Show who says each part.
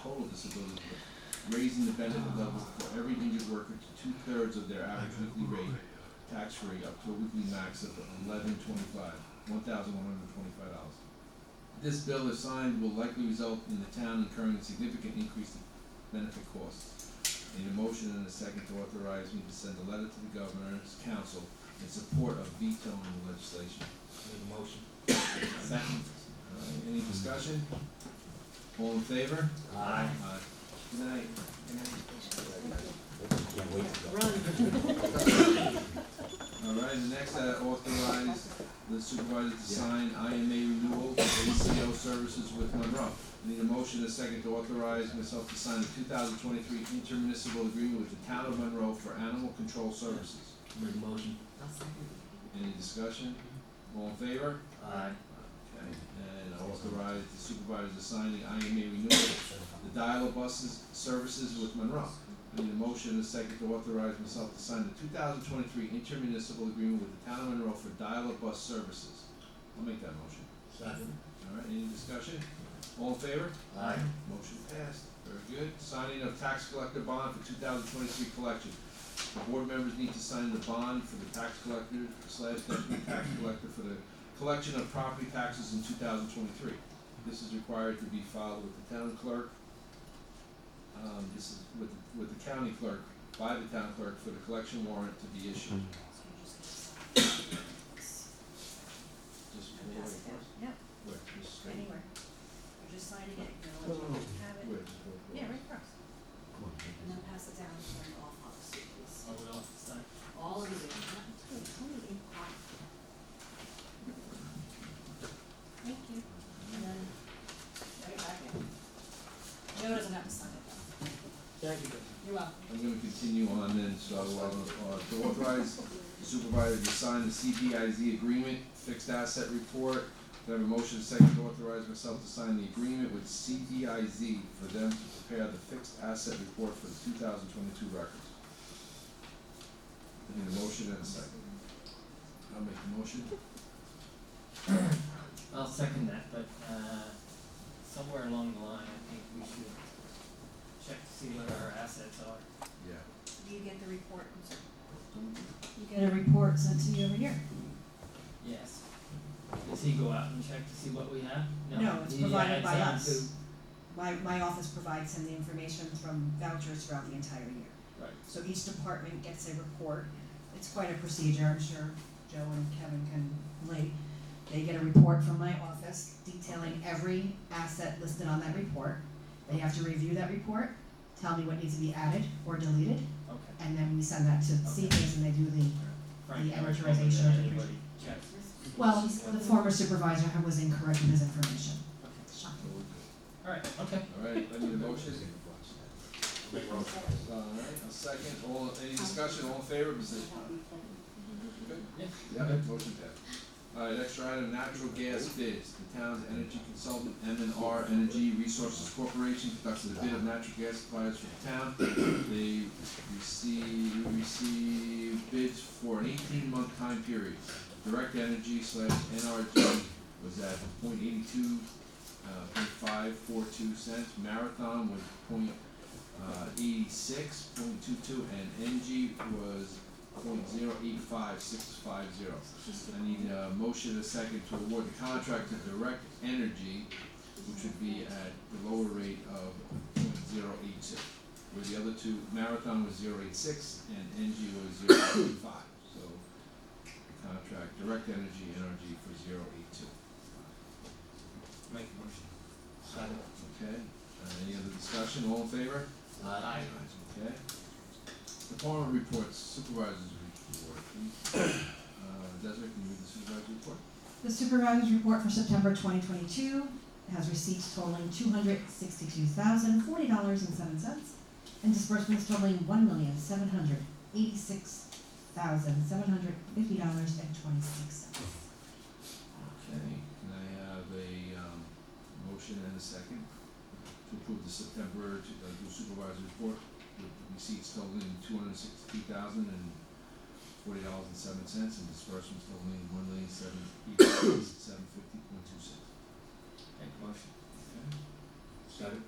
Speaker 1: total disability, but raising the benefit levels for every injured worker to two-thirds of their average weekly rate, tax rate, up to a weekly max of eleven twenty-five, one thousand one hundred twenty-five dollars. This bill, if signed, will likely result in the town incurring a significant increase in benefit costs. Need a motion and a second to authorize me to send a letter to the governor and his council in support of vetoing the legislation.
Speaker 2: Need a motion?
Speaker 1: Second. Alright, any discussion? All in favor?
Speaker 2: Aye.
Speaker 1: Aye. Good night.
Speaker 2: Can't wait to go.
Speaker 1: Alright, the next, I authorize the supervisor to sign IMA renewal for ACO services with Monroe. Need a motion, and a second to authorize myself to sign the two thousand twenty-three intermunicipal agreement with the town of Monroe for animal control services.
Speaker 2: Need a motion?
Speaker 1: Any discussion? All in favor?
Speaker 2: Aye.
Speaker 1: Okay, and I authorize the supervisor to sign the IMA renewal the dial buses services with Monroe. I need a motion and a second to authorize myself to sign the two thousand twenty-three intermunicipal agreement with the town of Monroe for dial bus services. I'll make that motion.
Speaker 2: Second?
Speaker 1: All right, any discussion? All in favor?
Speaker 2: Aye.
Speaker 1: Motion passed. Very good. Signing of tax collector bond for two thousand twenty-three collection. The board members need to sign the bond for the tax collector slash deputy tax collector for the collection of property taxes in two thousand twenty-three. This is required to be filed with the town clerk. Um, this is with, with the county clerk, by the town clerk for the collection warrant to be issued. Just.
Speaker 3: Pass it down. Yep,
Speaker 1: Wait, just.
Speaker 3: anywhere. You're just signing it, you're gonna let you have it.
Speaker 1: Wait, just wait, wait.
Speaker 3: Yeah, right across. And then pass it down to all policy, please.
Speaker 2: Are we all set?
Speaker 3: All of you. That's good. Only eight o'clock. Thank you. And then, right back in. Joe doesn't have to sign it though.
Speaker 2: Thank you.
Speaker 3: You're welcome.
Speaker 1: I'm gonna continue on then, so, uh, uh, to authorize supervisor to sign the CBIZ agreement, fixed asset report. Do I have a motion second to authorize myself to sign the agreement with CBIZ for them to prepare the fixed asset report for the two thousand twenty-two records? I need a motion and a second. I'll make the motion.
Speaker 4: I'll second that, but uh somewhere along the line, I think we should check to see what our assets are.
Speaker 1: Yeah.
Speaker 3: Do you get the report? I'm sorry. You get a report sent to you every year?
Speaker 4: Yes. Does he go out and check to see what we have?
Speaker 5: No, it's
Speaker 4: he
Speaker 5: provided
Speaker 4: adds
Speaker 5: by
Speaker 4: on
Speaker 5: us.
Speaker 4: to-
Speaker 5: My, my office provides him the information from vouchers throughout the entire year.
Speaker 4: Right.
Speaker 5: So each department gets a report. It's quite a procedure, I'm sure Joe and Kevin can relate. They get a report from my office detailing every asset listed on that report. They have to review that report, tell me what needs to be added or deleted,
Speaker 4: Okay.
Speaker 5: and then we send that to
Speaker 4: Okay.
Speaker 5: CPAs and they do the,
Speaker 4: Frank,
Speaker 5: The
Speaker 4: I recommend
Speaker 5: amortization
Speaker 4: that
Speaker 5: of the
Speaker 4: anybody checks.
Speaker 5: well, the former supervisor was incorrect in his information.
Speaker 4: Okay.
Speaker 5: Shocking.
Speaker 4: Alright, okay.
Speaker 1: Alright, I need a motion. Alright, a second, all, any discussion, all in favor, position? Good?
Speaker 4: Yeah.
Speaker 1: Yeah, motion passed. Alright, extra item, natural gas bids, the town's energy consultant, M and R Energy Resources Corporation conducted a bid of natural gas suppliers for the town. They receive, received bids for an eighteen month time period. Direct Energy slash NRG was at point eighty-two, uh, point five four two cents, Marathon was point, uh, eighty-six, point two-two, and NG was point zero eight five six five zero. I need a motion, a second, to award the contract to Direct Energy, which would be at the lower rate of point zero eight six. Where the other two, Marathon was zero eight six and NG was zero eight five, so contract Direct Energy, NRG for zero eight two.
Speaker 4: Make a motion.
Speaker 2: Second?
Speaker 1: Okay, uh, any other discussion, all in favor?
Speaker 2: Aye.
Speaker 1: Okay. Department reports, supervisors report. Uh, Desiree, can you read the supervisor's report?
Speaker 5: The supervisor's report for September twenty twenty-two has receipts totaling two hundred sixty-two thousand forty dollars and seven cents and disbursements totaling one million seven hundred eighty-six thousand seven hundred fifty dollars and twenty-six cents.
Speaker 1: Okay, can I have a, um, motion and a second to approve the September t- uh, the supervisor's report with receipts totaling two hundred sixty-two thousand and forty dollars and seven cents and disbursements totaling one million seven, seven fifty point two cents.
Speaker 4: Make a motion.
Speaker 1: Okay. Second.